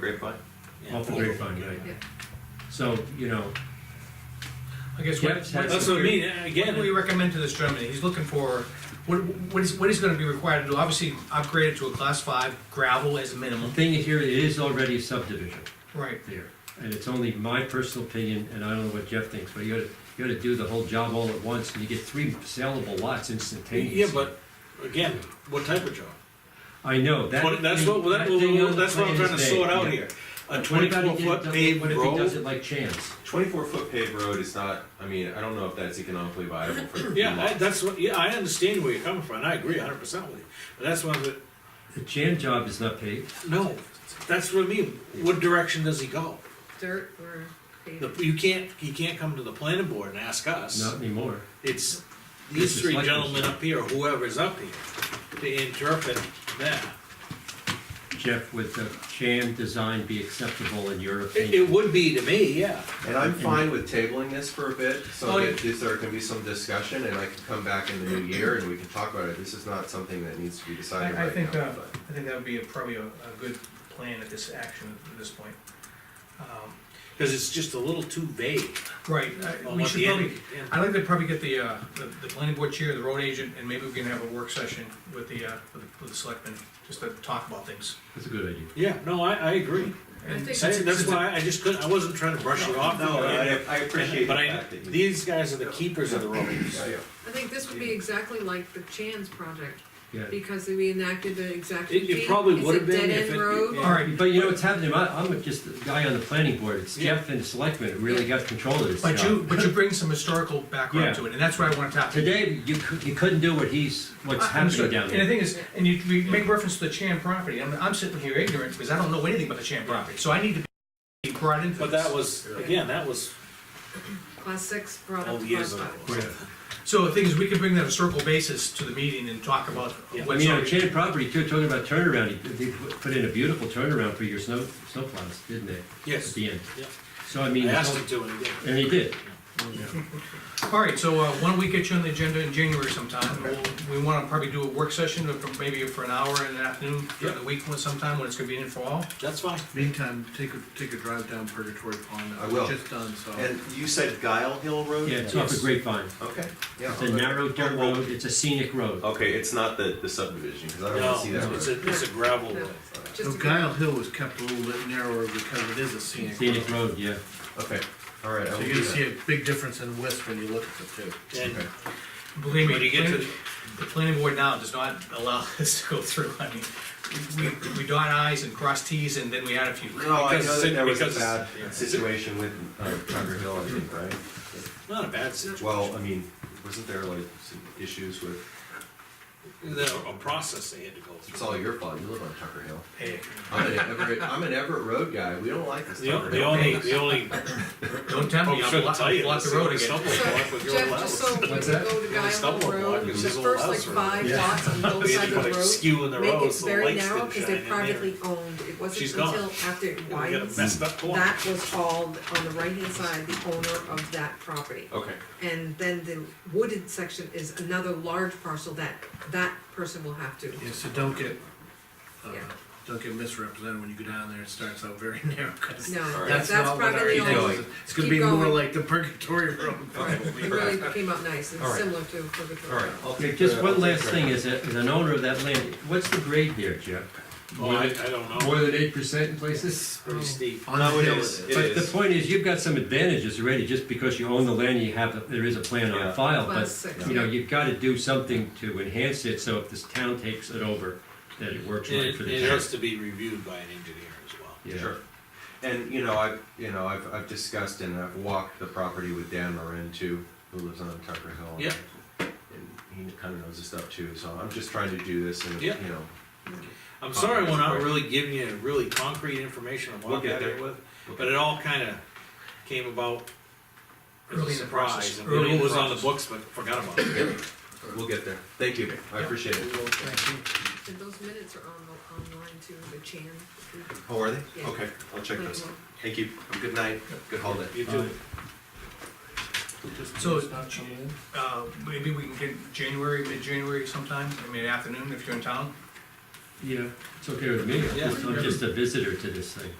Grapevine? Off the Yeah. grapevine, right? Yeah. So, you know, I guess Yeah, what, that's what- That's what I mean, what do we recommend to this gentleman? He's looking for, what, what is, what he's gonna be required to do? Obviously, upgrade it to a class five gravel as a the minimum. thing is here, it is already a subdivision Right. there. And it's only my personal opinion, and I don't know what Jeff thinks, but you gotta, you gotta do the whole job all at once and you get three sellable lots instantaneously. Yeah, but again, what type of job? I know, that. What- That's what, that- thing on the that's what I'm plan trying to is sort vague, out yeah. here. A What if I twenty-four did- foot does- paved What if he does road? it like chance? Twenty-four foot paved road is not, I mean, I don't know if that's economically viable for. Yeah, I- that's what, yeah, I understand where you're coming from, and I agree hundred percent with you, but that's one of the, The jam job is not paved. no, that's what I mean, what direction does he go? dirt or The- paving. You can't, you can't come to the planning board and ask us, not anymore. it's It's these the three selectmen's gentlemen job. up here, whoever's up here, to interpret that. Jeff, would the jam design be acceptable in your It, opinion? it would be to me, yeah. And I'm fine with tabling this for a bit, so Oh, that this- there can be some discussion, and I can come back in the new year and we can talk about it. This is not something that needs to be decided I, I right think, now, uh, but. I think that would be a- probably a, a good plan at this action, at this point. Um, Cause it's just a little too vague Right, I- on Uh, we what should the probably, end. end- I'd like to probably get the, uh, the, the planning board chair, the road agent, and maybe we can have a work session with the, uh, with the, with the selectmen, just to talk about things. That's a good idea. Yeah, no, I, I agree. I And That's, think since- that's since it- why I just couldn't, I wasn't trying to brush it off. No, I, And- I appreciate the But I, fact that you. these guys are the keepers of the roads. Yeah, yeah. I think this would be exactly like the Chan's project, Yeah. because we enacted the exact. It- it routine. probably would've been It's a if dead-end it- road, All right, But you know what's happening, I, I'm just the guy on the planning board, it's Yeah. Jeff and Selectman who really got control of this But you, job. but you bring some historical background to it, and that's what I wanna tap. Today, you cou- you couldn't do what he's, what's I- I'm happening sorry. down And the there. thing is, and you, we make reference to the Chan property, I'm, I'm sitting here ignorant, because I don't know anything about the Chan property, so I need to be brought into But this. that was, again, that was Class six brought up all to Oh, years class ago. five. Yeah. So the thing is, we can bring that a circle basis to the meeting and talk about Yeah. I what's. mean, on Chan property, too, talking about turnaround, they they put put in a beautiful turnaround for your snow, snowplows, didn't they? At Yes, the end. Yeah. So I mean, I it's asked all- him to and he did. and he did. All right, so uh, why don't we get you on the agenda in January sometime? We'll- We want to probably do a work session, of maybe for an hour in the afternoon, during the week when- sometime, when it's convenient for all. That's fine. Meantime, take a, take a drive down Purgatory Pond. I will. Just done, so. And you said Guile Hill Road? Yeah, it's off a Yes. grapevine. Okay, yeah. It's a narrow dirt road, it's a scenic road. Okay, it's not the, the subdivision, cause I don't wanna No, see that it's road. a, it's a gravel No, road. Just Oh, So a- Guile Hill was kept a little bit narrower because it is a scenic road. Scenic road, yeah. Okay, alright, I So will you're gonna do see that. a big difference in width when you look at the two. And Okay. Believe me, When you get to- the planning board now does not allow this to go through. I mean, we, we dot i's and cross t's, and then we add a few. No, I Because know that it- there was a because- bad yeah. situation with, uh, Tucker Hill, I think, right? not a bad situation. Well, I mean, wasn't there like some issues with, There- A process they had to go it's through. all your fault, you live on Tucker Hill. Hey, I'm an Everett, I'm an Everett Road guy, we don't like this The o- Tucker the Hill. only, thing. the only, Don't tempt I me, I'll shouldn't block tell I'll you. block this, the road it's again. double block with your Jeff, just so allowance. when you go to Only Guile stumble Hill block, Road, it's the just a first like louse road. five lots on both They had sides to put of the a road. skew in the Make road it so the very lights narrow, didn't cause shine they're in there. privately owned, it wasn't She's gone. until after it We got a widened, messed up corner. that was all on the right hand side, the owner of that property. Okay, And then the wooded section is another large parcel that that person will have to. Yeah, so don't get, uh, Yeah. don't get misrepresented when you go down there, it starts out very narrow, cause No, that's that's not what our privately ego owned. is. It's gonna Keep be more going. like the Purgatory Road. Right, it really came out nice, All it's right. similar to Purgatory. alright, I'll Okay, take. just the- one I'll take last the- thing, as a, as an owner of that land, what's the grade there, Jeff? Oh, I, I don't know. than eight percent in It's pretty steep. On No, the it hill it is. is. It But the is, point is, you've got some advantages already, just because you own the land, you have, there is a plan on Yeah. file, Class but, six. you know, you've gotta do something to enhance it, so if this town takes it over, that it works right It, for it the town. has to be reviewed by an engineer as well. Yeah. sure. And, you know, I've, you know, I've, I've discussed and I've walked the property with Dan Marin too, who lives on Tucker Hill. Yeah. And he kinda knows this stuff too, so I'm just trying to do this and, you Yeah. know, I'm sorry we're not really giving you really concrete information on We'll what get we're there. there with, but it all kinda came about as Early a in the process. surprise. and Early in It the was on the books, process. but forgot about it. we'll get there. Thank you, I appreciate it. And those minutes are on the, online too, the Chan. Oh, are they? Yeah. Okay, I'll check Like, those. well, Thank you. Have a good night. Good holiday. You Uh, do. So, uh, maybe we can get January, mid-January sometime, I mean, afternoon, if you're in town. Yeah, it's okay with me, Yeah. I'm just a visitor to this thing.